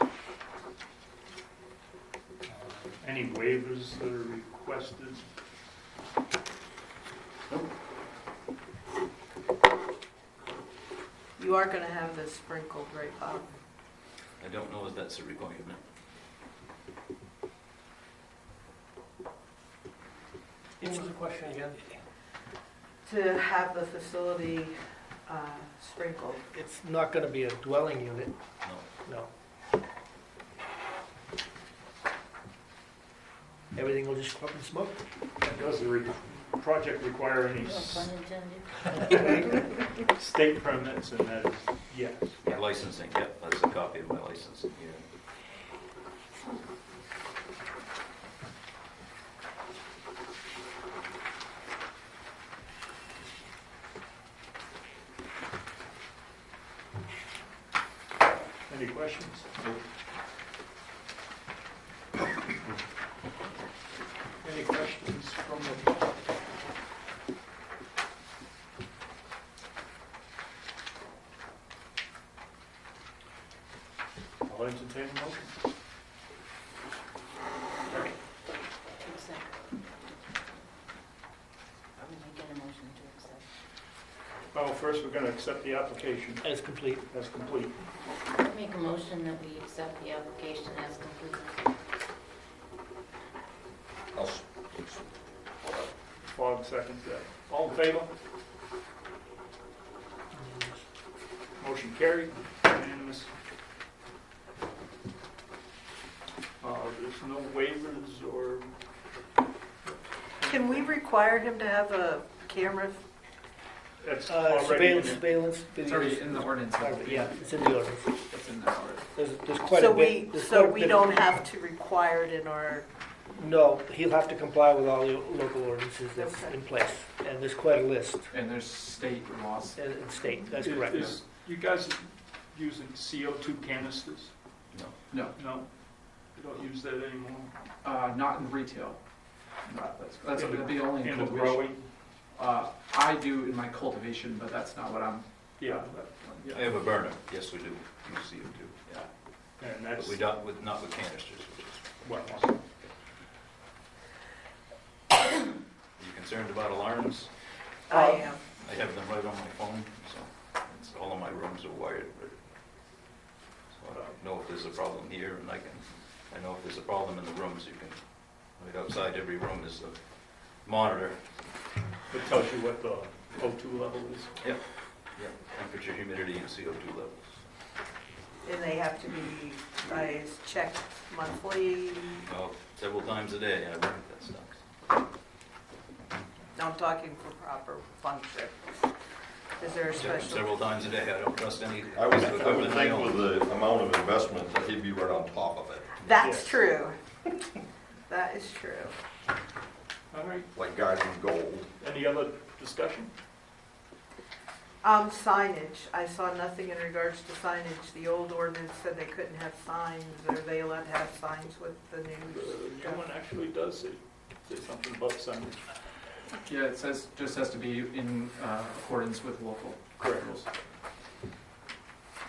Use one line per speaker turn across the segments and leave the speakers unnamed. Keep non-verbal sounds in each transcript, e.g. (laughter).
uh, Any waivers that are requested?
You are gonna have this sprinkled right up.
I don't know if that's a requirement.
What was the question again?
To have the facility uh, sprinkled.
It's not gonna be a dwelling unit,
No.
no. Everything will just go up in smoke?
Does the re- project require any s- state permits, and that is yes.
My licensing, yep, that's a copy of my license. Yeah.
Any questions? Any questions from the public? I'll entertain a motion.
Accept. I'm gonna get a motion to accept.
Well, first, we're going to accept the application
As complete.
as complete.
I Make a motion that we accept the application as complete.
Fogg seconds that. All in favor?
Uh,
Motion carried, unanimous. Uh, There's no waivers or,
Can we require him to have a camera?
that's
Uh,
already in
surveillance,
it.
surveillance,
It's already
videos.
in the ordinance.
Yeah, it's in the ordinance.
It's in the ordinance.
There's, there's quite a
So
bit.
we,
there's
so
quite a
we
bit-
don't have to require it in our,
No, he'll have to comply with all the local ordinances that's
Okay.
in place, and there's quite a list,
And there's state laws.
and and state, that's
Is-
correct.
is- You guys using CO2 canisters?
No,
No, you don't use that anymore?
uh, not in retail. Not- That's, that's gonna be only in
In the
cultivation.
growing?
Uh, I do in my cultivation, but that's not what I'm,
Yeah, that-
I
yeah.
have a burner, yes, we do, use CO2, yeah.
and
But
that's,
we don't, with, not with canisters, which is,
well,
are you concerned about alarms?
I
Uh,
am.
I have them right on my phone, so, it's, all of my rooms are wired, but, so I don't know if there's a problem here, and I can, I know if there's a problem in the rooms, you can, right outside every room is a monitor,
it tells you what the O2 level is.
yeah, temperature, humidity, and CO2 levels.
And they have to be, I check monthly,
Well, several times a day, I think that sucks.
I'm talking for proper function. Is there a special?
Several times a day, I don't trust any.
I would,
piece of
I would
equipment I
think
own.
with the amount of investment that he'd be right on top of it,
That's
Yes.
true. (laughs) That is true.
All right,
like guys in gold.
any other discussion?
Um, signage, I saw nothing in regards to signage. The old ordinance said they couldn't have signs. Are they allowed to have signs with the
Uh,
new stuff?
Someone actually does say, say something about signage.
yeah, it says, just has to be in uh, accordance with local
Correct.
rules.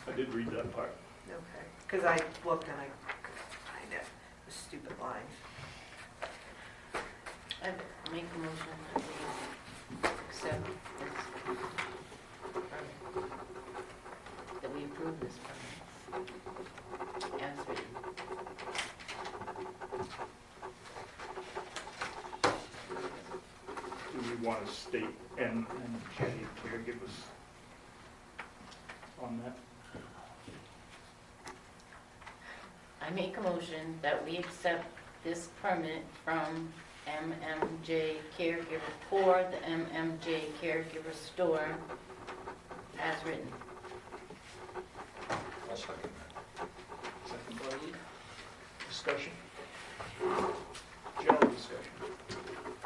I did read that part.
Okay, because I looked and I, I know, the stupid lines.
I make a motion that we accept this permit. That we approve this permit. As written.
Do we want to state and, and Jenny caregivers on that?
I make a motion that we accept this permit from MMJ Caregiver for the MMJ Caregiver Store as written.
I'll second
Second by Lee. Discussion? General discussion.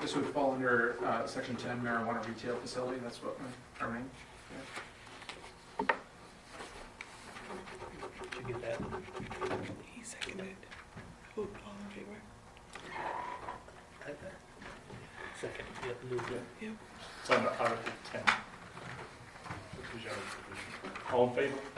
This would fall under uh, section 10 marijuana retail facility, that's what my, our name.
Should get that. Second, yep, Lou, yeah.
It's under Article 10. Which is our position. All in favor?